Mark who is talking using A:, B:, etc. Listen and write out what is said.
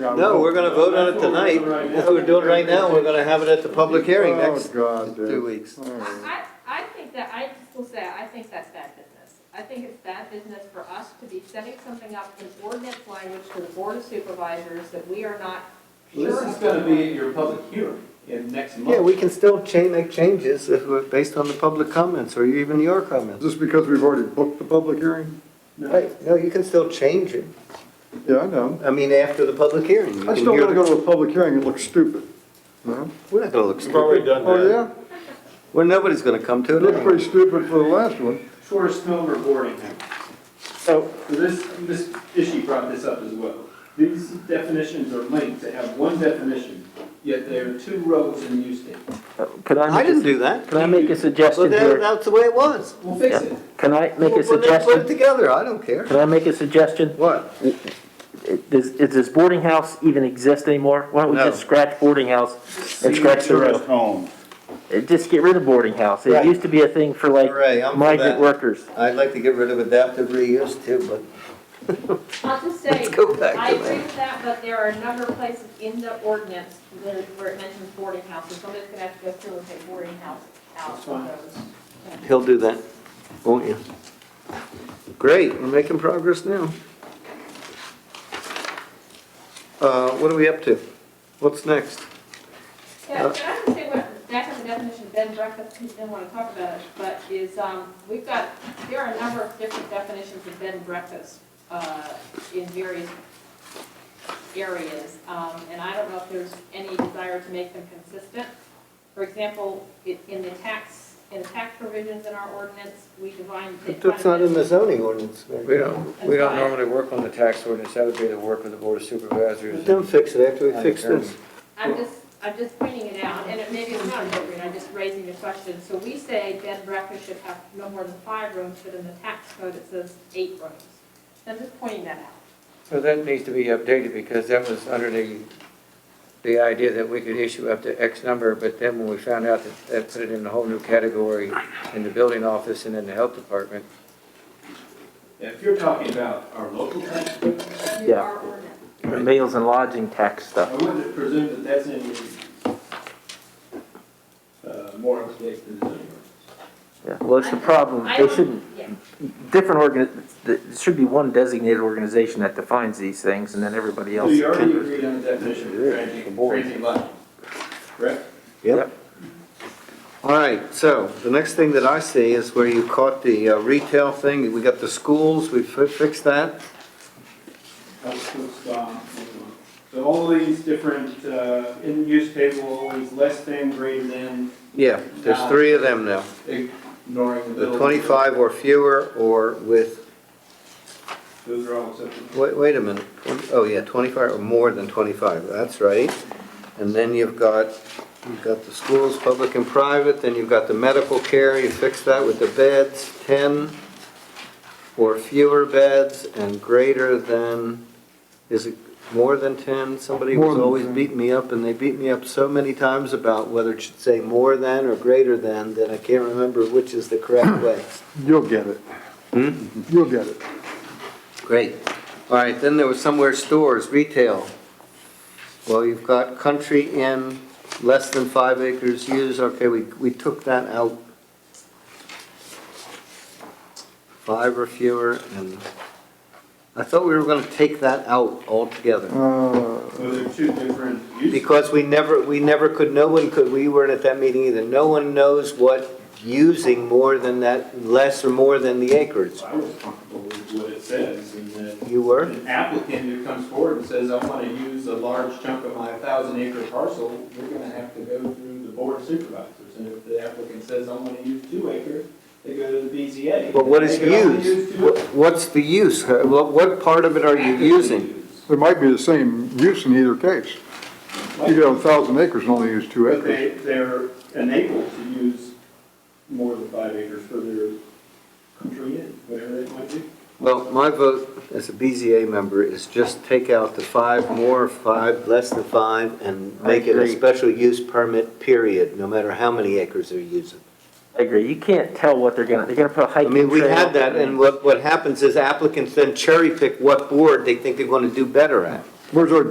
A: No, we're gonna vote on it tonight. That's what we're doing right now. We're gonna have it at the public hearing next
B: Oh, God, dude.
A: two weeks.
B: All right.
C: I, I think that, I just will say, I think that's bad business. I think it's bad business for us to be setting something up in ordinance language to the board of supervisors that we are not
D: Well,
C: sure.
D: This is gonna be at your public hearing in next month.
A: Yeah, we can still change, make changes if we're- based on the public comments or even your
B: Is
A: comments.
B: this because we've already booked the public hearing?
A: Right, no, you can still change it.
B: Yeah, I know.
A: I mean, after the public hearing. you
B: I
A: can
B: still
A: hear
B: wanna
A: the-
B: go to a public hearing and look stupid. No?
A: We're not gonna look
E: We've already
A: stupid.
E: done
B: Oh,
E: that.
B: yeah?
A: Well, nobody's gonna come to
B: It
A: it
B: looked
A: anyway.
B: pretty stupid for the last one.
D: Shortest film recording.
E: So,
D: So this, this issue brought this up as well. These definitions are linked, they have one definition, yet they are two rows in use date.
F: Could
A: I
F: I
A: didn't
F: make,
A: do that.
F: a- could I make a
A: Well,
F: suggestion
A: that,
F: here?
A: that's the way it was.
D: We'll fix it.
F: Can I make
A: Well,
F: a
A: put it- Put it
F: suggestion?
A: together, I don't care.
F: Can I make a suggestion?
A: What?
F: Does, does this boarding house even exist anymore? Why don't we
A: No.
F: just scratch boarding house and scratch the row?
E: home.
F: Uh, Just get rid of boarding house.
A: Right.
F: It used to be a thing for like
A: Hooray, I'm for that.
F: migrant workers.
A: I'd like to get rid of adaptive reuse too, but
C: I'll just say,
A: Let's go back
C: I
A: to
C: agree
A: that.
C: with that, but there are a number of places in the ordinance where, where it mentions boarding houses. Somebody's gonna have to go through and take boarding house out of
D: That's fine.
C: those.
A: He'll do that, won't you? Great, we're making progress now. Uh, what are we up to? What's next?
C: Yeah,
A: Uh,
C: but I would say what, back on the definition of bed and breakfast, because you didn't want to talk about it, but is, um, we've got, there are a number of different definitions of bed and breakfast, uh, in various areas, um, and I don't know if there's any desire to make them consistent. For example, i- in the tax, in the tax provisions in our ordinance, we define. they
A: That's not in the zoning ordinance.
G: We don't, we don't normally work on the tax ordinance, that would be the work of the board of supervisors.
A: Don't fix it after we fix this.
C: I'm just, I'm just pointing it out, and it maybe it's not appropriate, I'm just raising the question. So we say bed and breakfast should have no more than five rooms, but in the tax code it says eight rooms. I'm just pointing that out.
G: So that needs to be updated, because that was under the, the idea that we could issue up to X number, but then when we found out that that put it in a whole new category in the building office and in the health department,
D: If you're talking about our local tax, code,
C: You
F: Yeah.
C: are ordinance.
F: Meals and lodging tax
D: I
F: stuff.
D: wouldn't presume that that's any, uh, more up to date than the zoning ordinance.
F: Yeah, well, it's the problem.
C: I
F: They
C: don't-
F: shouldn't,
C: yeah.
F: different organ, there should be one designated organization that defines these things and then everybody
D: So
F: else.
D: you already
F: can-
D: agreed on the definition of transient, transient lodging, correct?
A: Yep. All right, so the next thing that I see is where you caught the uh, retail thing. We got the schools, we fi- fixed that.
D: That's what's gone. So all these different, uh, in use table, always less than, greater than,
A: Yeah, there's three of them now.
D: ignoring the
A: The
D: building.
A: 25 or fewer or with
D: Those are all acceptable.
A: Wait, wait a minute, Twen- oh yeah, twenty-five or more than twenty-five, that's right. And then you've got, you've got the schools, public and private, then you've got the medical care, you fix that with the beds, ten or fewer beds and greater than, is it more than ten? Somebody was always beating me up, and they beat me up so many times about whether it should say more than or greater than, that I can't remember which is the correct way.
B: You'll get it.
E: Hmm?
B: You'll get it.
A: Great. All right, then there was somewhere stores, retail. Well, you've got country inn, less than five acres used, okay, we, we took that out. Five or fewer, and I thought we were gonna take that out altogether.
B: Uh,
D: Those are two different uses.
A: Because we never, we never could, no one could, we weren't at that meeting either, no one knows what using more than that, less or more than the acreage.
D: I was comfortable with what it says, and then
A: You were?
D: an applicant who comes forward and says, I want to use a large chunk of my thousand acre parcel, we're going to have to go through the board of supervisors. And if the applicant says, I want to use two acres, they go to the BZA.
A: But what is
D: They can
A: used?
D: only use two acres.
A: What- What's the use? Uh, What, what part of it are you using?
B: It might be the same use in either case. You could have a thousand acres and only use two
D: But
B: acres.
D: they, they're enabled to use more than five acres for their country inn, whatever that might be.
A: Well, my vote as a BZA member is just take out the five, more, five, less than five, and
F: I
A: make it a
F: agree.
A: special use permit, period, no matter how many acres they're using.
F: I agree. You can't tell what they're gonna, they're gonna put a
A: I
F: hiking trail.
A: mean, we had that, and what, what happens is applicants then cherry pick what board they think they're gonna do better at.
B: Where's our